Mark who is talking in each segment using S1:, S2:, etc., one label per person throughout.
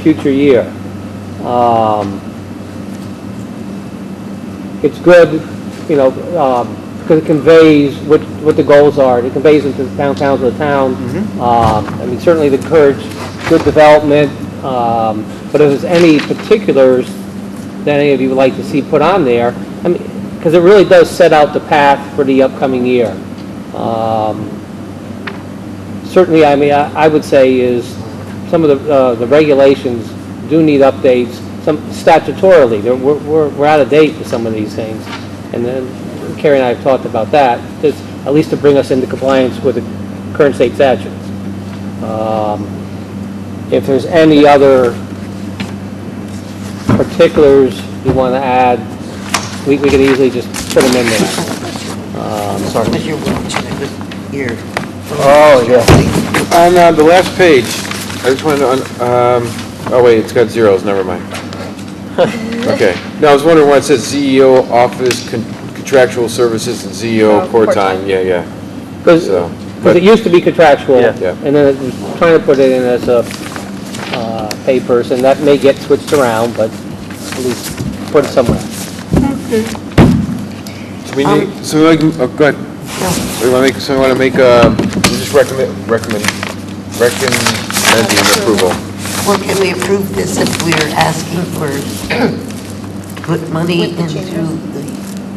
S1: future year. Um, It's good, you know, um, because it conveys what, what the goals are, it conveys into the downtowns of the town. Um, I mean, certainly to encourage good development, um, but if there's any particulars that any of you would like to see put on there, I mean, because it really does set out the path for the upcoming year. Um, certainly, I mean, I I would say is, some of the, uh, the regulations do need updates, some statutorily, They're- we're, we're we're out of date with some of these things. And then Carrie and I have talked about that, just at least to bring us into compliance with the current state statutes. Um, If there's any other particulars you want to add, we, we could easily just put them in there. Um,
S2: Because you're watching it with your...
S3: Oh, On uh, the last page, I just wanted to, un- um, oh wait, it's got zeros, never mind. Okay, no, I was wondering why it says ZEO office con- contractual services and
S4: Oh,
S3: ZEO court
S4: court time.
S3: time, yeah, yeah,
S1: Because
S3: So,
S1: it
S3: but-
S1: used to be contractual,
S5: Yeah.
S3: Yeah.
S1: and then it was trying to put it in as a uh, pay person. That may get switched around, but at least put it somewhere.
S3: So we
S4: Um,
S3: need, so we can, oh, go ahead. We wanna make, so we wanna make, uh, we just recommend, recommend, recommending approval.
S2: Or can we approve this if we're asking for, put money
S4: With the
S2: into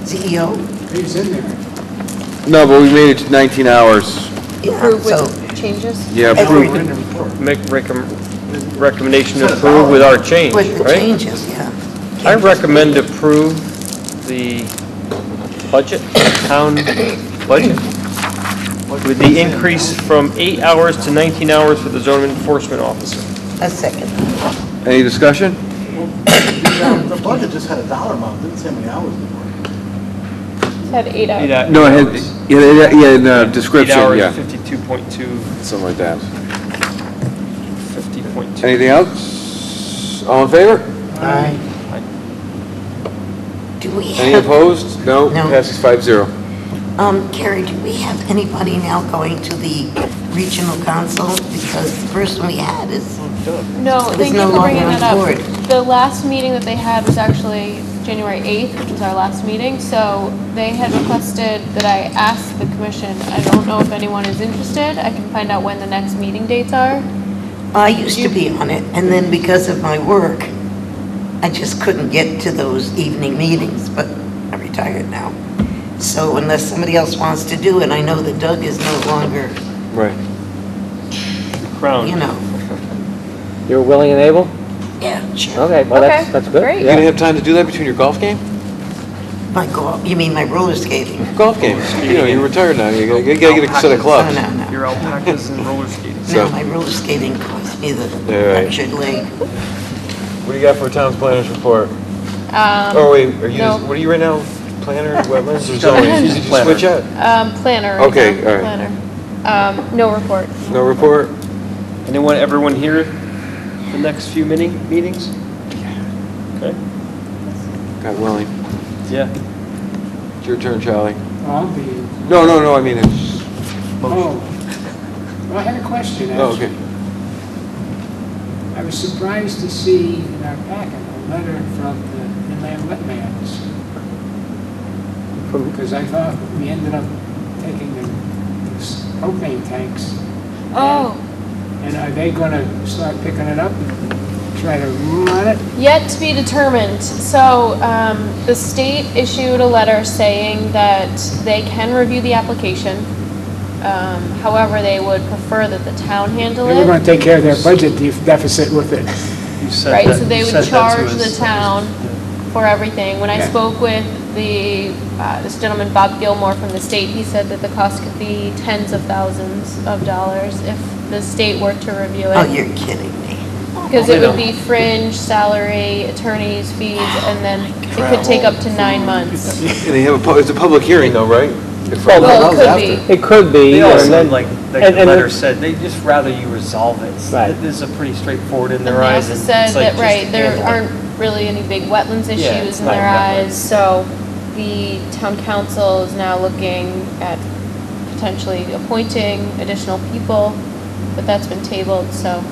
S2: the E CEO?
S3: No, but we made it to nineteen hours,
S2: Yeah,
S4: Approve
S2: so
S4: with changes?
S3: yeah,
S2: if we're-
S3: approved.
S5: Make recom- recommendation to approve with our change,
S2: With the
S5: right?
S2: changes, yeah.
S5: I recommend approve the budget, town budget, with the increase from eight hours to 19 hours for the zone enforcement officer.
S2: A second.
S3: Any discussion?
S6: The budget just had a dollar amount, didn't say how many hours it was.
S4: Had eight
S5: Eight
S4: hours.
S5: hou-
S3: No, it
S5: hours.
S3: had, yeah, yeah, yeah, in the description,
S5: Eight hours,
S3: yeah,
S5: 52.2,
S3: something like that.
S5: 50.2.
S3: Anything else? All in favor?
S2: Do we
S3: Any
S2: have,
S3: opposed? No?
S2: No.
S3: Passes five zero.
S2: um, Carrie, do we have anybody now going to the regional council? Because the person we had is,
S4: No,
S2: It's
S4: thank
S2: no
S4: you for bringing
S2: longer
S4: that
S2: on
S4: up.
S2: board.
S4: The last meeting that they had was actually January 8th, which was our last meeting, so they had requested that I ask the commission. I don't know if anyone is interested. I can find out when the next meeting dates are.
S2: I used to be on it, and then because of my work, I just couldn't get to those evening meetings, but I'm retired now. So unless somebody else wants to do it, I know that Doug is no longer,
S3: Right.
S5: Crown.
S2: you know,
S1: You're willing and able?
S2: yeah, sure.
S1: Okay, well, that's,
S4: Okay,
S1: that's good.
S4: great.
S3: You gonna
S1: Yeah.
S3: have time to do that between your golf game?
S2: My golf, you mean my roller skating?
S3: Golf games. You know, you're retired now, you gotta you gotta get a set of
S2: No,
S3: clubs.
S2: no, no.
S5: Your alpacas and roller skates.
S3: So-
S2: No, my roller skating caused me the
S3: Yeah, right.
S2: fractured leg.
S3: What do you got for a town's planners report?
S4: Um,
S3: Oh, wait, are you,
S4: no.
S3: what are you right now? Planner, wetlands, or
S5: Zoning.
S3: zoning?
S5: She's
S3: Did you
S5: planner.
S3: Switch out?
S4: um, Planner. right
S3: Okay,
S4: now,
S3: all right.
S4: Planner. Um, No report.
S3: No report?
S5: Anyone, everyone here, the next few mini, meetings? Okay,
S3: God willing.
S5: yeah.
S3: It's your turn, Charlie.
S7: I'll be, in.
S3: No, no, no, I mean, it's,
S7: oh, Well, I had a question,
S3: oh,
S7: actually.
S3: okay.
S7: I was surprised to see in our packet a letter from the inland wetlands,
S1: From-
S7: because I thought we ended up taking the those propane tanks.
S4: Oh.
S7: And are they gonna start picking it up and try to rule on it?
S4: Yet to be determined. So um, the state issued a letter saying that they can review the application. Um, however, they would prefer that the town handle
S7: They were
S4: it.
S7: gonna take care of their budget def- deficit with it.
S5: You said
S4: Right,
S5: that-
S4: so they
S5: you
S4: would
S5: said that to
S4: charge
S5: us.
S4: the town for everything. When I
S7: Yeah.
S4: spoke with the uh, this gentleman Bob Gilmore from the state, he said that the cost could be tens of thousands of dollars if the state were to review it.
S2: Oh, you're kidding me.
S4: Because
S5: They
S4: it would
S5: don't.
S4: be fringe, salary, attorney's fees, and then it could take up to nine months.
S3: And they have a, pu- it's a public hearing though, right? If I-
S4: Well, it could be.
S1: It could be,
S5: They
S1: and
S5: all
S1: then-
S5: seemed like, like
S1: and-
S5: the
S1: and-
S5: letter said, they just rather you resolve it.
S1: Right.
S5: This is a pretty straightforward in
S4: And they
S5: their eyes.
S4: also
S5: and it's
S4: said
S5: like
S4: that,
S5: just
S4: right, there
S5: handle it.
S4: aren't really any big wetlands
S5: Yeah,
S4: issues
S5: it's
S4: in
S5: not
S4: their
S5: wetlands.
S4: eyes, so the town council is now looking at potentially appointing additional people, but that's been tabled, so